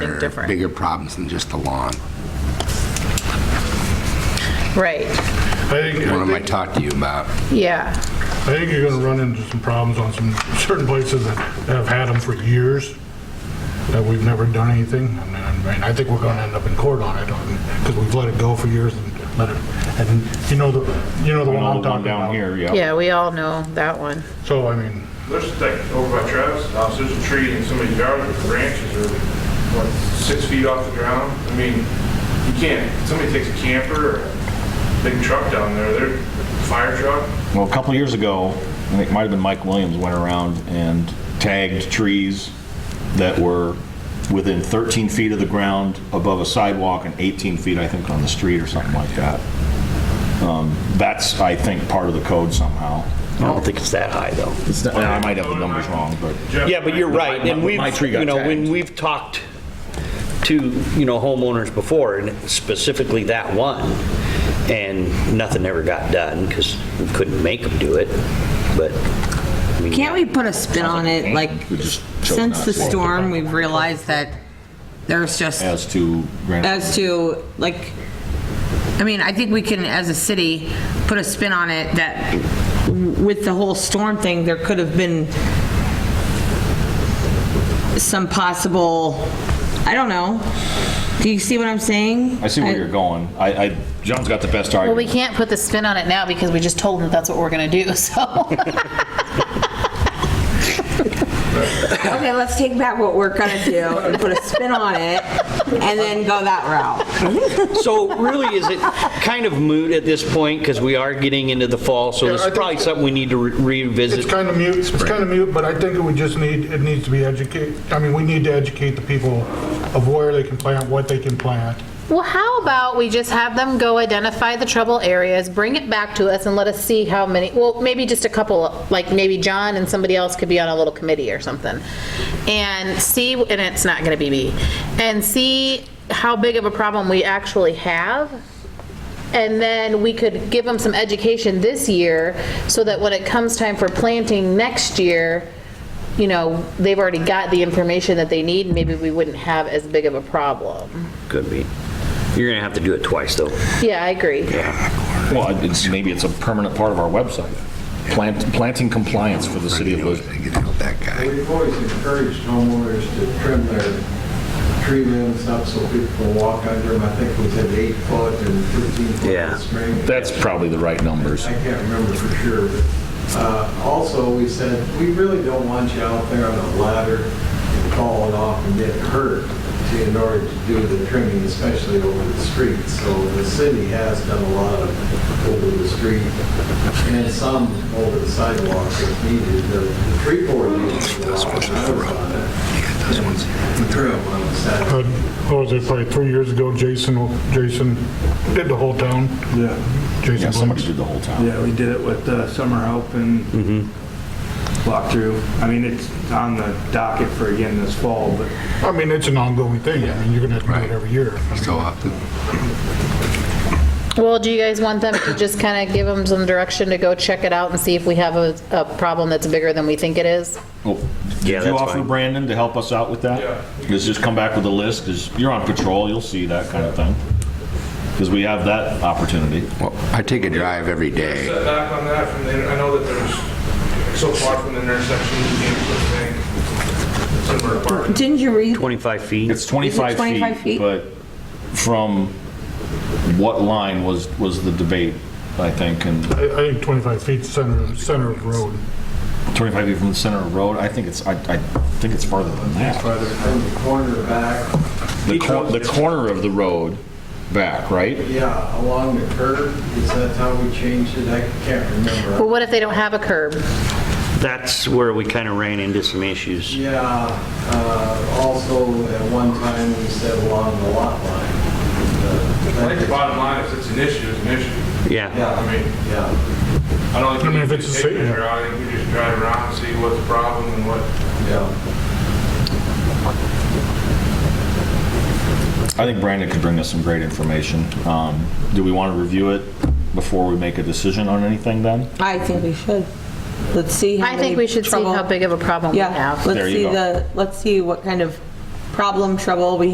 different. bigger problems than just the lawn. Right, I think, What I am I think, talking to you about? yeah. I think you're gonna run into some problems on some certain places that have had them for years, that we've never done anything. I mean, I mean, I think we're gonna end up in court on it, because we've let it go for years and let it, and you know the, you know the one I'm Another one talking down about. here, yeah. Yeah, we all know that one. So, I mean, There's a thing over by Travis' house, there's a tree in somebody's yard, the branches are, what, six feet off the ground? I mean, you can't, somebody takes a camper or a big truck down there, their fire truck, Well, a couple years ago, I think it might have been Mike Williams went around and tagged trees that were within 13 feet of the ground above a sidewalk and 18 feet, I think, on the street or something like that. Um, That's, I think, part of the code somehow. I don't think it's that high, though. It's not- I might have the numbers wrong, but. Jeff. Yeah, but you're right, My- and my- we've, my tree got you know, when tagged. we've talked to, you know, homeowners before, and specifically that one, and nothing ever got done, because we couldn't make them do it, but, I mean... Can't we put a spin on it? Like, We just chose since not the to. storm, we've realized that there's just, As to Granite as to, like, I mean, I think we can, as a city, put a spin on it that with the whole storm thing, there could have been some possible, I don't know. Do you see what I'm saying? I see where you're going. I, I, John's got the best Well, argument. we can't put the spin on it now because we just told them that's what we're going to do, so. Okay, let's take back what we're gonna do and put a spin on it and then go that route. So really, is it kind of moot at this point, because we are getting into the fall, so this I is think- probably something we need to re- it's revisit. kind of mute, it's kind of mute, but I think we just need, it needs to be educated, I mean, we need to educate the people of where they can plant, what they can plant. Well, how about we just have them go identify the trouble areas, bring it back to us and let us see how many, well, maybe just a couple, like maybe John and somebody else could be on a little committee or something. And see, and it's not going to be me, and see how big of a problem we actually have. And then we could give them some education this year so that when it comes time for planting next year, you know, they've already got the information that they need, and maybe we wouldn't have as big of a problem. Could be. You're going to have to do it twice, though. Yeah, I agree. Well, it's, maybe it's a permanent part of our website. Plant, planting compliance for the city of Lisbon. Get out that guy. We've always encouraged homeowners to trim their tree limbs up so people can walk under them. I think we said eight foot and 15 foot Yeah. in spring. That's probably the right numbers. I can't remember for sure. but, uh, Also, we said, we really don't want you out there on a ladder and falling off and getting hurt to- in order to do the trimming, especially over the street. So the city has done a lot of over the street and some over the sidewalks if needed. The the tree board needs to allow it. I was on it. The trim on the Saturday. Uh, What was it, probably three years ago, Jason, Jason did the whole town. Yeah, Jason Yeah, somebody Blumenthal. did the whole town. yeah, we did it with the summer help and walkthrough. I mean, it's on the docket for again this fall, but I mean, it's an ongoing thing. I mean, you're going to have to do it every year. So often. Well, do you guys want them to just kind of give them some direction to go check it out and see if we have a, a problem that's bigger than we think it is? Oh, Yeah, Did you that's offer fine. Brandon to help us out with that? Yeah. Let's just come back with a list, because you're on patrol, you'll see that kind of thing. Because we have that opportunity. Well, I take a drive every day. Set back on that from the, inter- I know that there's so far from the intersection, you can't put a thing somewhere apart. Didn't you read 25 feet? It's 25 25 feet, feet? but from what line was, was the debate, I think, and I I think 25 feet center, center of road. 25 feet from the center of the road, I think it's, I, I think it's farther than that. Whether from the corner back, The cor- the corner of the road back, right? yeah, along the curb, is that how we changed it? I can't remember. Well, what if they don't have a curb? That's where we kind of ran into some issues. Yeah, uh, also, at one time, we said along the lot line. I think the Uh, bottom line is it's an issue, it's an issue. Yeah. Yeah, I mean, yeah, I don't I think. we mean, if need it's to a take city- it there. I think we just drive around and see what's the problem and what, yeah. I think Brandon could bring us some great information. Um, Do we want to review it before we make a decision on anything then? I think we should. Let's see how I think many we should see trouble- how big of a problem we Yeah, have. let's There you see go. the, let's see what kind of problem, trouble we